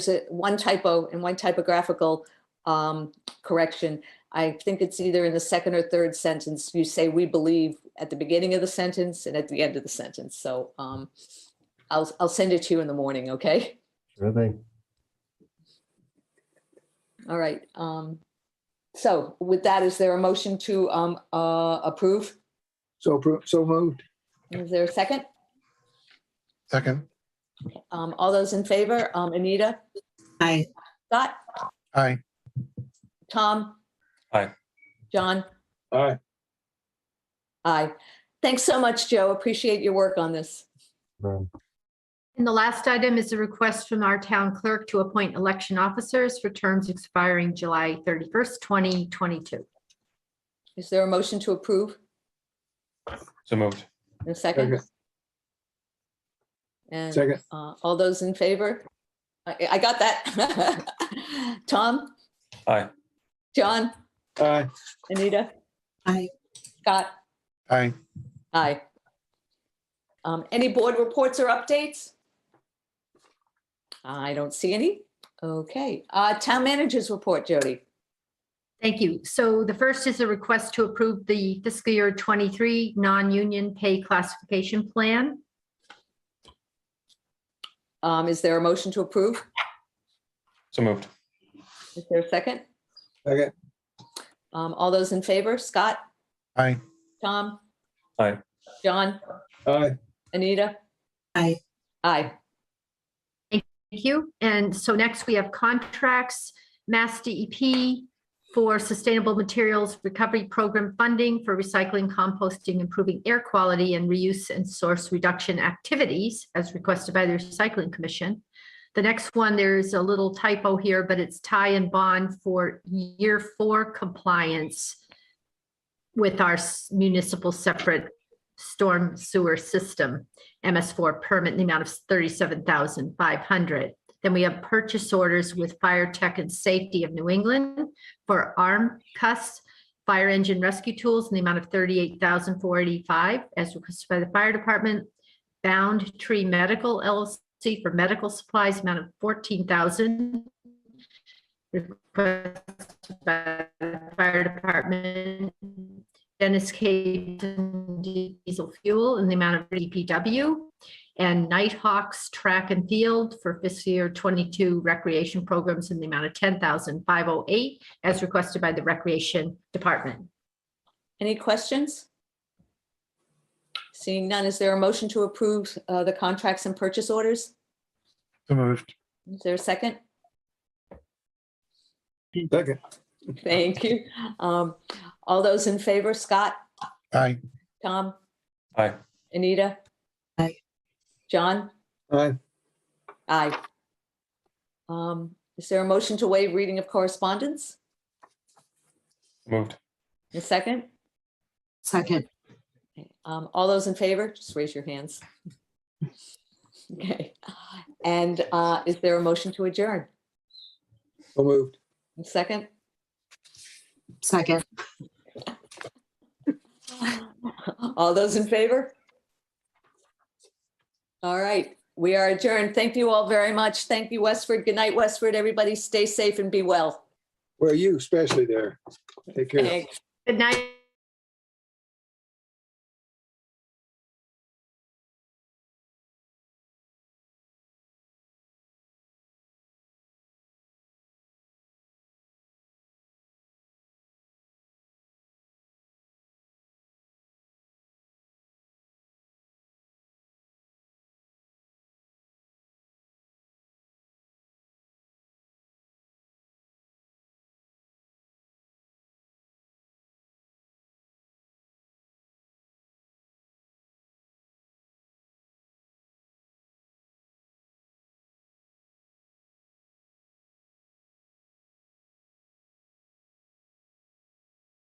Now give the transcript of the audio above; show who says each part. Speaker 1: there's a- one typo and one typographical um, correction. I think it's either in the second or third sentence, you say "we believe" at the beginning of the sentence and at the end of the sentence. So um, I'll, I'll send it to you in the morning, okay?
Speaker 2: Sure thing.
Speaker 1: All right. um, So with that, is there a motion to um, uh, approve?
Speaker 3: So, appro- so moved.
Speaker 1: Is there a second?
Speaker 3: Second.
Speaker 1: Um, All those in favor? Um, Anita?
Speaker 4: Aye.
Speaker 1: Scott?
Speaker 3: Aye.
Speaker 1: Tom?
Speaker 5: Aye.
Speaker 1: John?
Speaker 3: Aye.
Speaker 1: Aye. Thanks so much, Joe. Appreciate your work on this.
Speaker 2: Um,
Speaker 6: And the last item is a request from our town clerk to appoint election officers for terms expiring July 31st, 2022.
Speaker 1: Is there a motion to approve
Speaker 5: So moved.
Speaker 1: in a second?
Speaker 3: Second.
Speaker 1: And
Speaker 3: Second.
Speaker 1: uh, all those in favor? I I got that. Tom,
Speaker 5: Aye.
Speaker 1: John,
Speaker 3: Aye.
Speaker 1: Anita,
Speaker 4: Aye.
Speaker 1: Scott,
Speaker 3: Aye.
Speaker 1: aye. Um, Any board reports or updates? I don't see any. Okay, Uh, town managers report, Jody.
Speaker 6: Thank you. So the first is a request to approve the fiscal year 23 non-union pay classification plan.
Speaker 1: Um, Is there a motion to approve?
Speaker 5: So moved.
Speaker 1: Is there a second?
Speaker 3: Second.
Speaker 1: Um, All those in favor? Scott?
Speaker 3: Aye.
Speaker 1: Tom?
Speaker 5: Aye.
Speaker 1: John?
Speaker 3: Aye.
Speaker 1: Anita?
Speaker 4: Aye.
Speaker 1: Aye.
Speaker 6: Thank you. And so next we have contracts, Mass DEP for Sustainable Materials Recovery Program funding for recycling, composting, improving air quality and reuse and source reduction activities as requested by the Recycling Commission. The next one, there's a little typo here, but it's tie and bond for year four compliance with our s- municipal separate storm sewer system. MS4 permit in the amount of 37,500. Then we have purchase orders with Fire Tech and Safety of New England for arm cuss, fire engine rescue tools in the amount of 38,485 as requested by the fire department. Bound Tree Medical LLC for medical supplies, amount of 14,000. Requested by the fire department. Dennis K. Diesel Fuel in the amount of DPW and Nighthawks Track and Field for fiscal year 22 recreation programs in the amount of 10,508 as requested by the Recreation Department.
Speaker 1: Any questions? Seeing none, is there a motion to approve uh, the contracts and purchase orders?
Speaker 3: So moved.
Speaker 1: Is there a second?
Speaker 3: Second.
Speaker 1: Thank you. Um, All those in favor, Scott,
Speaker 3: Aye.
Speaker 1: Tom,
Speaker 5: Aye.
Speaker 1: Anita?
Speaker 4: Aye.
Speaker 1: John?
Speaker 3: Aye.
Speaker 1: Aye. Um, Is there a motion to waive reading of correspondence?
Speaker 5: Moved.
Speaker 1: A second?
Speaker 4: Second.
Speaker 1: Okay, Um, all those in favor, just raise your hands. Okay, and, uh, is there a motion to adjourn?
Speaker 3: So moved.
Speaker 1: Second?
Speaker 4: Second.
Speaker 1: All those in favor? All right, we are adjourned. Thank you all very much. Thank you, Westford. Good night, Westford. Everybody stay safe and be well.
Speaker 3: Well, you especially there. Take care.
Speaker 1: Thanks.
Speaker 6: Good night,